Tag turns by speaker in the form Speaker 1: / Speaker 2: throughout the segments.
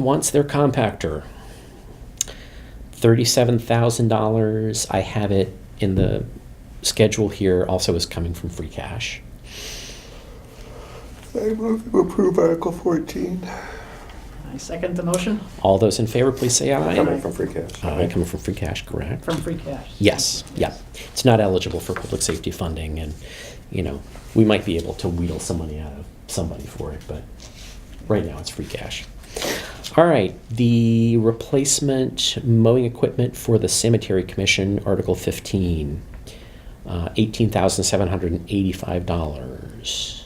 Speaker 1: wants their compactor. Thirty-seven thousand dollars. I have it in the schedule here. Also, is coming from free cash.
Speaker 2: I move to approve Article 14.
Speaker 3: I second the motion
Speaker 1: All those in favor, please say aye.
Speaker 3: Aye.
Speaker 2: Coming from free cash.
Speaker 1: Aye, coming from free cash, correct?
Speaker 3: from free cash.
Speaker 1: Yes, yeah. It's not eligible for public safety funding, and you know we might be able to wheedle some money out of somebody for it, but right now it's free cash. All right, the replacement mowing equipment for the cemetery commission, Article fifteen, uh, eighteen thousand seven hundred and eighty-five dollars.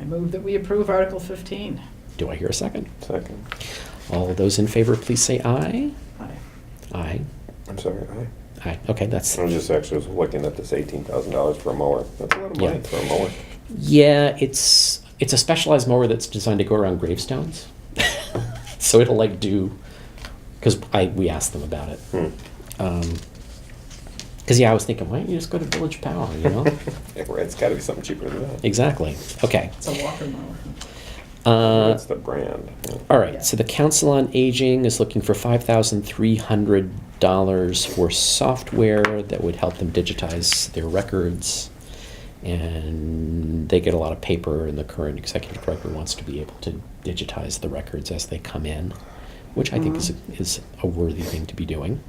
Speaker 3: I move that we approve Article 15.
Speaker 1: Do I hear a second?
Speaker 2: Second.
Speaker 1: All those in favor, please say aye.
Speaker 3: Aye.
Speaker 1: Aye.
Speaker 2: I'm sorry, aye.
Speaker 1: Aye. Okay, that's
Speaker 2: I was just actually was looking at this $18,000 for a mower. That's a lot of
Speaker 1: Yeah.
Speaker 2: money for a mower.
Speaker 1: Yeah, it's it's a specialized mower that's designed to go around gravestones. so it'll like do because I we asked them about it.
Speaker 2: Hmm.
Speaker 1: Because yeah, I was thinking, why don't you just go to Village Power? You know,
Speaker 2: Yeah, right, It's got to be something cheaper than that.
Speaker 1: exactly. Okay.
Speaker 3: It's a walker mower.
Speaker 1: Uh,
Speaker 2: That's the brand. yeah.
Speaker 1: all right. So the Council on Aging is looking for five thousand three hundred dollars for software that would help them digitize their records. And they get a lot of paper, and the current executive director wants to be able to digitize the records as they come in, which I think is, a, is a worthy thing to be doing.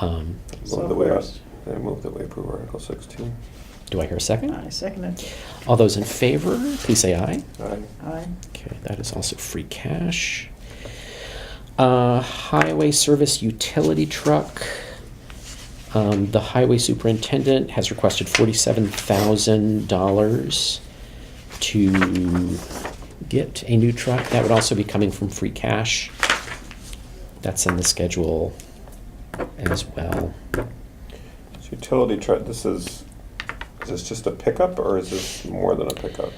Speaker 1: Um,
Speaker 2: Move the way up.
Speaker 3: Software's-
Speaker 2: I move that we approve Article 16.
Speaker 1: do I hear a second?
Speaker 3: I second it.
Speaker 1: All those in favor, please say aye.
Speaker 2: Aye.
Speaker 3: Aye.
Speaker 1: Okay, that is also free cash. Uh, highway service utility truck. Um, the highway superintendent has requested forty-seven thousand dollars to get a new truck. That would also be coming from free cash. That's in the schedule as well.
Speaker 2: It's utility truck, this is, is this just a pickup or is this more than a pickup?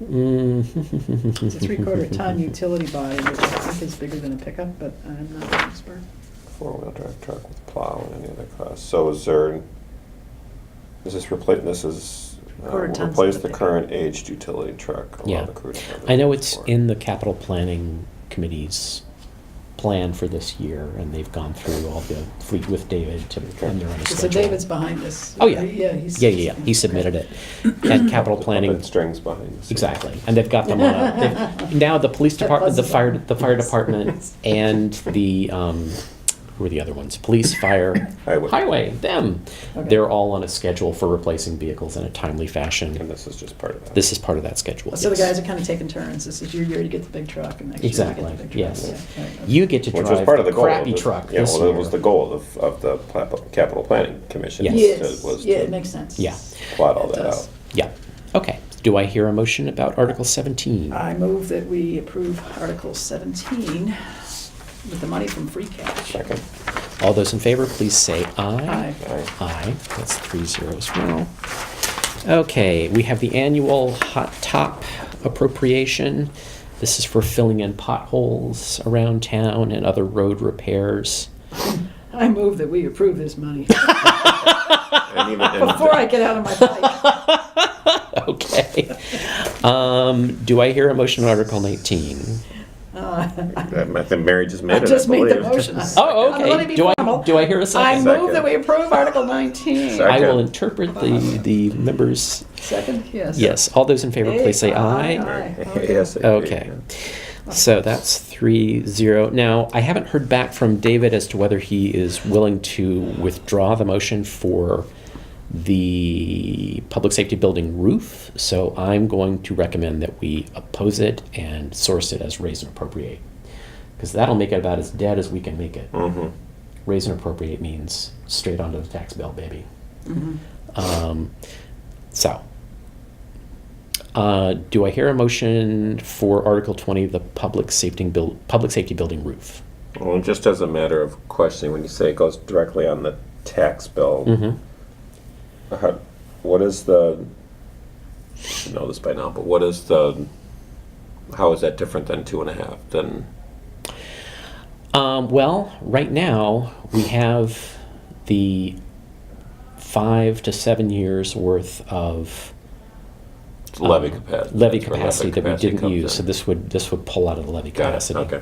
Speaker 3: It's a three-quarter ton utility body, which I think is bigger than a pickup, but I'm not an expert.
Speaker 2: Four-wheel drive truck with plow and any other costs. So is there, is this replace, this is, uh,
Speaker 3: Quarter tons
Speaker 2: replace
Speaker 3: of
Speaker 2: the
Speaker 3: pickup.
Speaker 2: current aged utility truck? allow
Speaker 1: Yeah.
Speaker 2: the crew to have it
Speaker 1: I know it's
Speaker 2: for-
Speaker 1: in the capital planning committee's plan for this year, and they've gone through all the fleet with David to, and they're on a
Speaker 3: So
Speaker 1: schedule.
Speaker 3: David's behind this.
Speaker 1: Oh, yeah.
Speaker 3: Yeah, he's.
Speaker 1: Yeah, yeah, yeah, he submitted it. That capital
Speaker 2: The
Speaker 1: planning,
Speaker 2: puppet strings behind. the scenes.
Speaker 1: exactly, and they've got them on, a- they've- now the police
Speaker 3: That
Speaker 1: department, the
Speaker 3: buzzes
Speaker 1: fire,
Speaker 3: them.
Speaker 1: the fire department, and the, um, who are the other ones? Police, fire,
Speaker 2: Highway.
Speaker 1: highway, them.
Speaker 3: Okay.
Speaker 1: They're all on a schedule for replacing vehicles in a timely
Speaker 2: And
Speaker 1: fashion.
Speaker 2: this is just part of that.
Speaker 1: This is part of that schedule.
Speaker 3: So the
Speaker 1: yes.
Speaker 3: guys are kind of taking turns. This is your year to get the big truck and next year you get the
Speaker 1: Exactly,
Speaker 3: big truck.
Speaker 1: yes.
Speaker 3: Yeah, right, okay.
Speaker 1: You get to
Speaker 2: Which was
Speaker 1: drive
Speaker 2: part of the
Speaker 1: the
Speaker 2: goal. of
Speaker 1: crappy
Speaker 2: the-
Speaker 1: truck
Speaker 2: Yeah,
Speaker 1: this
Speaker 2: well, that was the
Speaker 1: year.
Speaker 2: goal of, of the pla- capital planning commission.
Speaker 1: Yes.
Speaker 2: was to-
Speaker 3: Yes,
Speaker 2: was
Speaker 3: yeah,
Speaker 2: to
Speaker 3: it makes sense.
Speaker 1: Yeah.
Speaker 2: Plot all
Speaker 3: It
Speaker 2: that
Speaker 3: does.
Speaker 2: out.
Speaker 1: Yeah, okay. Do I hear a motion about Article 17?
Speaker 3: I move that we approve Article 17 with the money from free cash.
Speaker 2: Second,
Speaker 1: All those in favor, please say
Speaker 3: Aye.
Speaker 1: aye.
Speaker 2: aye.
Speaker 1: Aye, that's three zero as well. Okay, we have the annual hot top appropriation. This is for filling in potholes around town and other road repairs.
Speaker 3: I move that we approve this money
Speaker 2: And even- and-
Speaker 3: before I get out of my bike.
Speaker 1: Okay. Um, do I hear a motion on Article 19?
Speaker 2: I think Mary just made
Speaker 3: I
Speaker 2: it, I
Speaker 3: just made the
Speaker 2: believe.
Speaker 3: motion.
Speaker 1: Oh,
Speaker 3: I'm gonna
Speaker 1: okay.
Speaker 3: be
Speaker 1: Do I,
Speaker 3: formal.
Speaker 1: do I hear a
Speaker 3: I
Speaker 1: second?
Speaker 3: move that we approve Article 19.
Speaker 2: Second.
Speaker 1: I will interpret the, the members.
Speaker 3: Second, yes.
Speaker 1: Yes, all those in favor, please say aye.
Speaker 2: ASAP,
Speaker 1: Okay.
Speaker 2: yeah.
Speaker 1: So that's three zero. Now, I haven't heard back from David as to whether he is willing to withdraw the motion for the public safety building roof. So I'm going to recommend that we oppose it and source it as raise and appropriate. Because that'll make it about as dead as we can make it. Raise and appropriate means straight onto the tax bill, baby. Um, so, uh, do I hear a motion for Article 20, the public safety, buil- public safety building roof?
Speaker 2: Well, just as a matter of questioning, when you say it goes directly on the tax bill,
Speaker 1: Mm-hmm.
Speaker 2: how- what is the, I should know this by now, but what is the, how is that different than two and a half, than,
Speaker 1: Um, well, right now we have the five to seven years worth of
Speaker 2: Levy
Speaker 1: um,
Speaker 2: capacity.
Speaker 1: Levy
Speaker 2: that's where
Speaker 1: capacity that we
Speaker 2: capacity
Speaker 1: didn't
Speaker 2: comes
Speaker 1: use,
Speaker 2: in.
Speaker 1: so this would, this would pull out of the levy
Speaker 2: Got it,
Speaker 1: capacity.
Speaker 2: okay.